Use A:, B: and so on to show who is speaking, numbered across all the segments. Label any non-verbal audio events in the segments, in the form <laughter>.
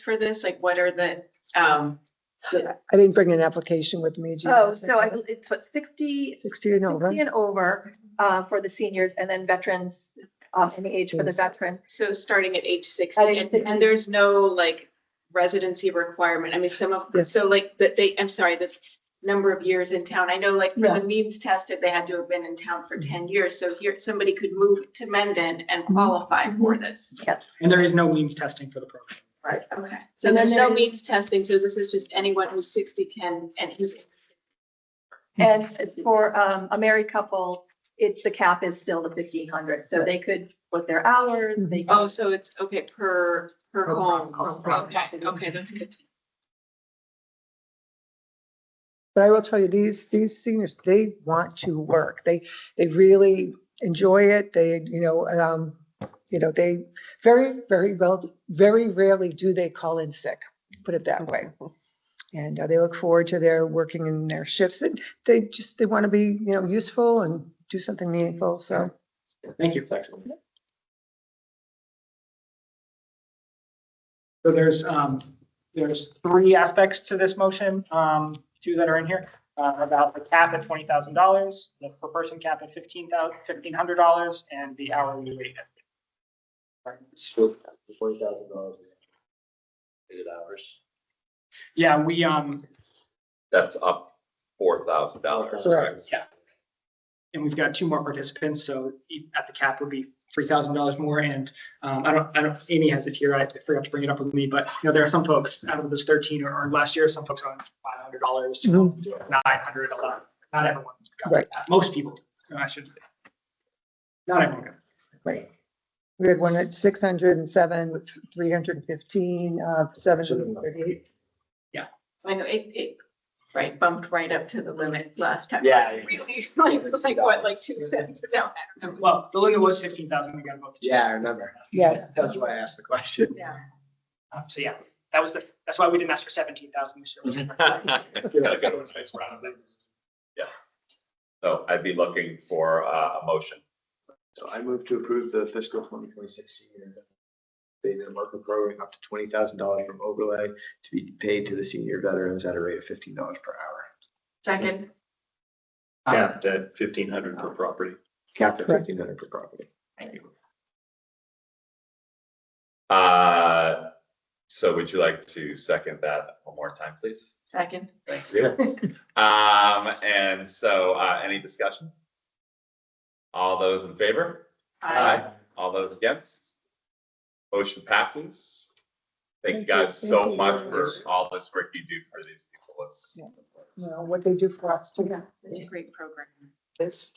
A: for this? Like, what are the, um,
B: I didn't bring an application with me. do you?
C: Oh, so I, it's what, 60
B: Sixty and
C: 60
B: over.
C: and over, uh, for the seniors and then veterans, um, any age for the
B: Yes.
C: veteran.
A: so starting at age
C: At
A: sixty,
C: age
A: and,
C: 60.
A: and there's no like residency requirement. I mean, some of,
B: Yes.
A: so like, that they, I'm sorry, the number of years in town. I know like for
C: Yeah.
A: the means tested, they had to have been in town for ten years. So here, somebody could move to Mendon and qualify for this.
C: Yes.
D: And there is no means testing for the program.
A: Right, okay. So
C: And then
A: there's no
C: there is-
A: means testing, so this is just anyone who's sixty can, and who's.
B: Hmm.
C: And for, um, a married couple, it's, the cap is still the fifteen hundred, so they could put their hours, they.
B: Mm-hmm.
A: Oh, so it's, okay, per, per
C: Per
A: home.
C: home, per
A: Okay,
C: property.
A: okay, that's good.
B: But I will tell you, these, these seniors, they want to work. They, they really enjoy it. They, you know, um, you know, they very, very well, very rarely do they call in sick, put it that
C: <laughs>
B: way. And uh, they look forward to their working in their shifts and they just, they want to be, you know, useful and do something meaningful. So
D: Thank you. So there's, um, there's three aspects to this motion, um, two that are in here, uh, about the cap at twenty thousand dollars, the per person cap at fifteen thousand, fifteen hundred dollars, and the hourly rate. at-
E: So twenty thousand dollars. Eight hours.
D: Yeah, we, um,
F: That's up four thousand dollars,
B: Correct.
F: correct?
D: Yeah. and we've got two more participants, so e- at the cap would be three thousand dollars more, and, um, I don't, I don't, Amy has it here, I forgot to bring it up with me, but, you know, there are some folks, out of those thirteen or, or last year, some folks on five hundred dollars, nine
C: Mm-hmm.
B: Mhm.
D: hundred, a lot, not everyone. got
B: Right.
D: that. Most people, no, I shouldn't say. Not everyone. got
B: we had one at six hundred and seven, with three hundred and fifteen, uh, seven thirty-eight.
A: I know it, it, right, bumped right up to the limit last time.
E: Yeah,
A: Like,
E: yeah.
A: Really, <laughs> like, it was like what, like two cents? No, I don't
D: it.
A: know.
D: Well, the limit was fifteen thousand, we got both.
E: Yeah, I remember.
B: Yeah,
E: That's why I asked the question.
A: Yeah.
D: Um, so yeah, that was the, that's why we didn't ask for seventeen thousand this year.
F: Gotta go with nice round. So I'd be looking for uh, a motion.
E: So I move to approve the fiscal twenty twenty-six senior payment market program up to twenty thousand dollars from overlay to be paid to the senior veterans at a rate of fifteen dollars per hour.
A: Second,
D: Um,
F: at fifteen hundred
E: per
F: property.
E: Capped at
B: Correct.
E: fifteen hundred per property. Thank you.
F: Uh, so would you like to second that one more time, please?
A: second.
F: Thank you. Um, and so, uh, any discussion? All those in favor?
A: Aye.
F: All those against? Motion passes. Thank you
B: Thank you.
F: guys so
B: Thank you
F: much
B: very
F: for
B: much.
F: all this work you do for these people. It's,
B: Yeah. you know, what they do for us too.
A: Such a great program.
B: This,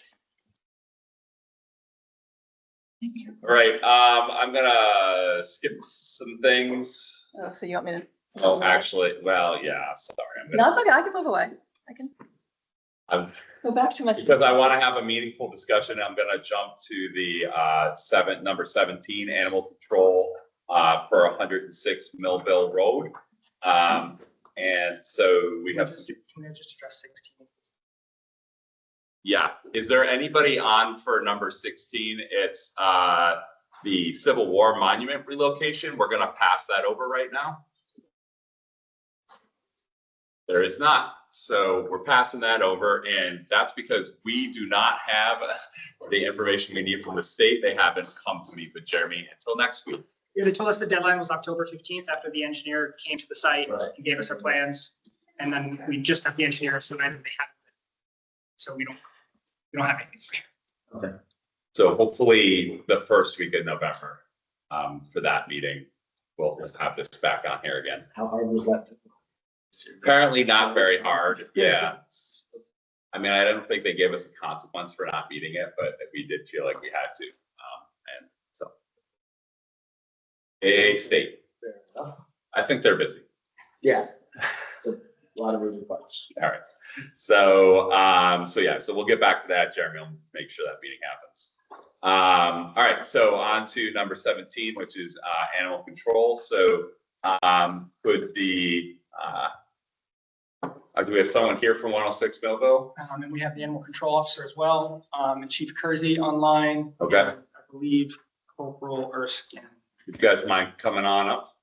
F: all right, um, I'm gonna skip some things.
C: Oh, so you want me to?
F: Oh, actually, well, yeah, sorry. I'm
C: No,
F: gonna-
C: it's okay, I can move away, I can
F: I'm-
C: go back to my.
F: Because I want to have a meaningful discussion, I'm gonna jump to the, uh, seven, number seventeen, animal control, uh, per hundred and six Millville Road. Um, and so we have
D: Can I just address sixteen?
F: Yeah, is there anybody on for number sixteen? It's uh the Civil War Monument relocation. We're gonna pass that over right now. There is not, so we're passing that over, and that's because we do not have the information we need from the state. They haven't come to me, but Jeremy, until next week.
D: Yeah, they told us the deadline was October fifteenth after the engineer came to the site
E: Right.
D: and gave us our plans. And then we just have the engineer, so then they have. it. So we don't, we don't have anything.
F: So hopefully the first week of November um for that meeting, we'll have this back on here again.
E: How hard was that?
F: Apparently not very hard, yeah. I mean, I don't think they gave us a consequence for not beating it, but we did feel like we had to, um, and so. A state,
E: Fair enough.
F: I think they're busy,
E: Yeah. A lot of moving parts.
F: all right. So, um, so yeah, so we'll get back to that, Jeremy, will make sure that meeting happens. Um, all right, so on to number seventeen, which is, uh, animal control, so, um, could the, uh, uh, do we have someone here from one oh six Millville?
D: Um, and we have the animal control officer as well, um, and Chief Kersey online.
F: Okay.
D: I believe Corporal Erskine.
F: You guys mind coming on up?